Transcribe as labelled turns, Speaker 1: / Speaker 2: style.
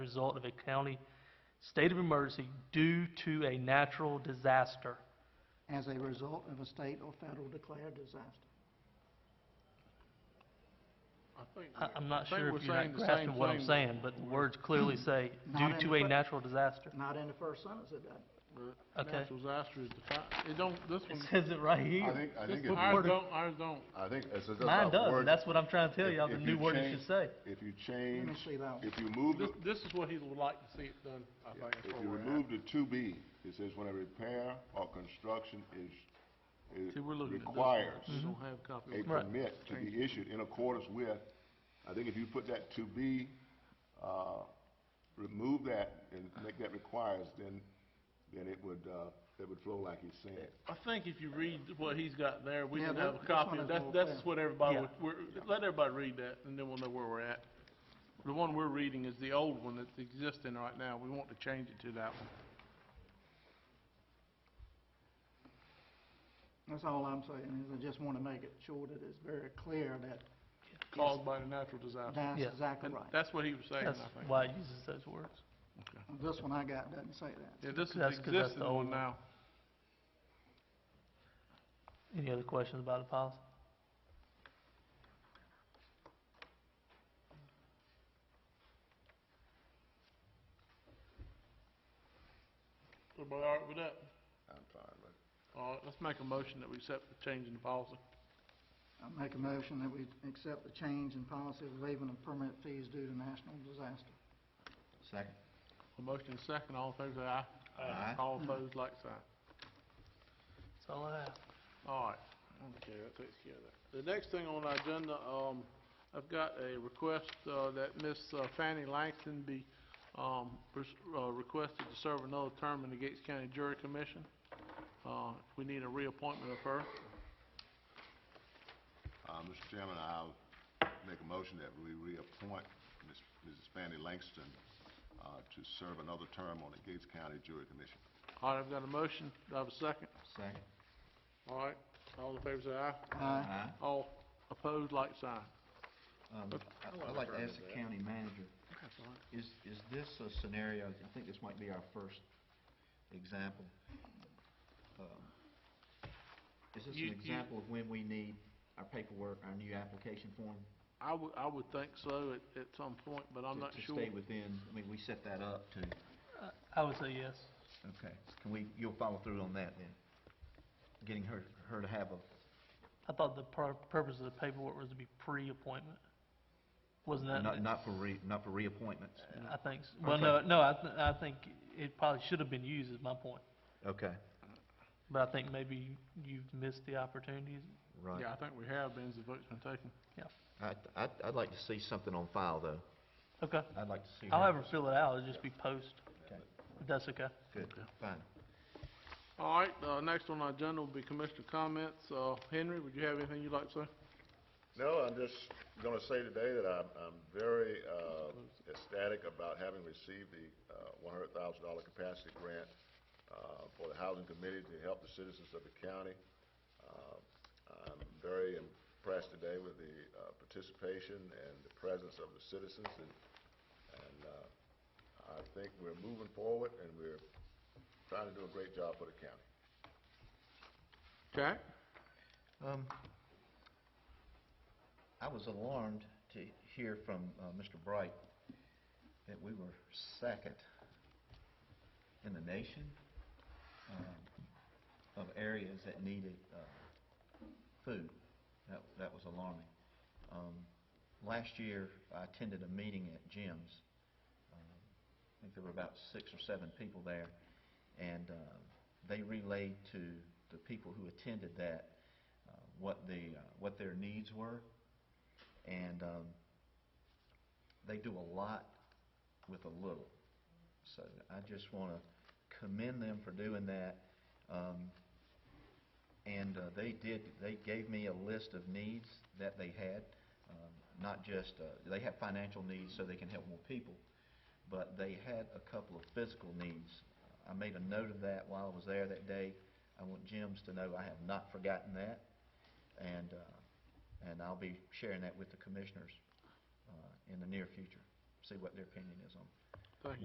Speaker 1: result of a county state of emergency due to a natural disaster.
Speaker 2: as a result of a state or federal declared disaster.
Speaker 3: I think
Speaker 1: I,
Speaker 3: we're-
Speaker 1: I'm not
Speaker 3: I think
Speaker 1: sure
Speaker 3: we're
Speaker 1: if you're not
Speaker 3: saying the same
Speaker 1: grasping what I'm
Speaker 3: thing,
Speaker 1: saying, but the words clearly say,
Speaker 2: Not
Speaker 1: due
Speaker 2: in
Speaker 1: to
Speaker 2: the
Speaker 1: a
Speaker 2: fir-
Speaker 1: natural disaster.
Speaker 2: Not in the first sentence, it doesn't.
Speaker 3: but
Speaker 1: Okay.
Speaker 3: Natural disaster is defined, it don't, this
Speaker 1: It
Speaker 3: one,
Speaker 1: says it right
Speaker 4: I
Speaker 1: here.
Speaker 4: think, I think,
Speaker 3: this
Speaker 4: if
Speaker 3: one,
Speaker 4: you-
Speaker 3: ours don't, ours don't.
Speaker 4: I think, it's just
Speaker 1: Mine
Speaker 4: about
Speaker 1: does,
Speaker 4: word-
Speaker 1: and that's what I'm trying to tell
Speaker 4: if-
Speaker 1: y'all, the
Speaker 4: if
Speaker 1: new
Speaker 4: you
Speaker 1: word it
Speaker 4: change-
Speaker 1: should say.
Speaker 4: If you
Speaker 2: Let me
Speaker 4: change,
Speaker 2: see that one.
Speaker 4: if you move,
Speaker 3: This,
Speaker 4: the-
Speaker 3: this is what he would like to see it done, I think, that's
Speaker 4: if
Speaker 3: where
Speaker 4: you
Speaker 3: we're at.
Speaker 4: remove the two B, it says when a repair or construction is, is
Speaker 3: See, we're looking at this.
Speaker 4: requires
Speaker 3: We don't have a copy. of
Speaker 4: a
Speaker 3: it.
Speaker 1: Right.
Speaker 4: permit to be issued in accordance with, I think if you put that to be, uh, remove that and make that requires, then, then it would, uh, it would flow like he's saying.
Speaker 3: I think if you read what he's got there, we
Speaker 2: Yeah,
Speaker 3: didn't
Speaker 2: that-
Speaker 3: have a
Speaker 2: this
Speaker 3: copy,
Speaker 2: one is
Speaker 3: that's,
Speaker 2: more
Speaker 3: that's what everybody
Speaker 1: Yeah.
Speaker 3: would, we're, let everybody read that, and then we'll know where we're at. The one we're reading is the old one that's existing right now, we want to change it to that one.
Speaker 2: That's all I'm saying, is I just want to make it sure that it's very clear that
Speaker 3: caused by the natural disaster.
Speaker 2: that's
Speaker 1: Yeah.
Speaker 2: exactly
Speaker 3: And
Speaker 2: right.
Speaker 3: that's what he was saying, I
Speaker 1: That's
Speaker 3: think.
Speaker 1: why it uses those words.
Speaker 2: This one I got doesn't say that.
Speaker 3: Yeah, this is the
Speaker 1: That's 'cause that's the
Speaker 3: existing
Speaker 1: old
Speaker 3: one
Speaker 1: one.
Speaker 3: now.
Speaker 1: Any other questions about the policy?
Speaker 4: uh,
Speaker 3: Everybody all right with that?
Speaker 4: I'm fine, but.
Speaker 3: All right, let's make a motion that we accept the change in the policy.
Speaker 2: I make a motion that we accept the change in policy of waiving of permit fees due to national disaster.
Speaker 5: Second.
Speaker 3: A motion and a second, all in favor say aye.
Speaker 5: Aye.
Speaker 3: All opposed, like sign.
Speaker 1: That's all I have.
Speaker 3: All right, okay, that takes care of that. The next thing on our agenda, um, I've got a request, uh, that Miss uh, Fanny Langston be, um, pers- uh, requested to serve another term in the Gates County Jury Commission. Uh, we need a reappointment of her.
Speaker 4: Uh, Mr. Chairman, I'll make a motion that we reappoint Ms. Mrs. Fanny Langston, uh, to serve another term on the Gates County Jury Commission.
Speaker 3: All right, I've got a motion, do I have a second?
Speaker 5: Second.
Speaker 3: All right, all in favor say aye.
Speaker 2: Aye.
Speaker 5: Aye.
Speaker 3: All opposed, like sign.
Speaker 5: Um, I- I'd like to ask the county manager, is, is this a scenario, I think this might be our first example. Um, Is this
Speaker 3: You- you-
Speaker 5: an example of when we need our paperwork, our new application form?
Speaker 3: I would, I would think so at, at some point, but I'm
Speaker 5: to-
Speaker 3: not sure.
Speaker 5: To stay within, I mean, we set that up to,
Speaker 1: I would say yes.
Speaker 5: okay, can we, you'll follow through on that then? Getting her, her to have a,
Speaker 1: I thought the pur- purpose of the paperwork was to be pre-appointment. Wasn't that?
Speaker 5: not, not for re, not for reappointments?
Speaker 1: I think, s- well,
Speaker 5: Okay.
Speaker 1: no, no, I, th- I think it probably should have been used, is my point.
Speaker 5: Okay,
Speaker 1: But I think maybe you've missed the opportunity.
Speaker 5: right.
Speaker 3: Yeah, I think we have been, as the vote's been taken.
Speaker 5: I, I'd, I'd like to see something on file though.
Speaker 1: Okay,
Speaker 5: I'd like to see.
Speaker 1: I'll
Speaker 5: her-
Speaker 1: have her fill it out, it'll just be post,
Speaker 5: Okay,
Speaker 1: if that's okay.
Speaker 5: Good, fine.
Speaker 3: All right, uh, next on our agenda will be commissioner comments. Uh, Henry, would you have anything you'd like to say?
Speaker 4: No, I'm just gonna say today that I'm, I'm very, uh, ecstatic about having received the, uh, one hundred thousand dollar capacity grant, uh, for the Housing Committee to help the citizens of the county. Uh, I'm very impressed today with the, uh, participation and the presence of the citizens and, and, uh, I think we're moving forward and we're trying to do a great job for the county.
Speaker 3: Jack?
Speaker 5: Um, I was alarmed to hear from, uh, Mr. Bright that we were second in the nation, um, of areas that needed, uh, food. That, that was alarming. Um, last year, I attended a meeting at Jim's. Um, I think there were about six or seven people there, and, uh, they relayed to the people who attended that uh, what the, uh, what their needs were. And um, they do a lot with a little. So I just want to commend them for doing that. Um, And uh, they did, they gave me a list of needs that they had, um, not just, uh, they have financial needs so they can help more people, but they had a couple of physical needs. I made a note of that while I was there that day. I want Jim's to know I have not forgotten that, and, uh, and I'll be sharing that with the commissioners uh, in the near future, see what their opinion is on.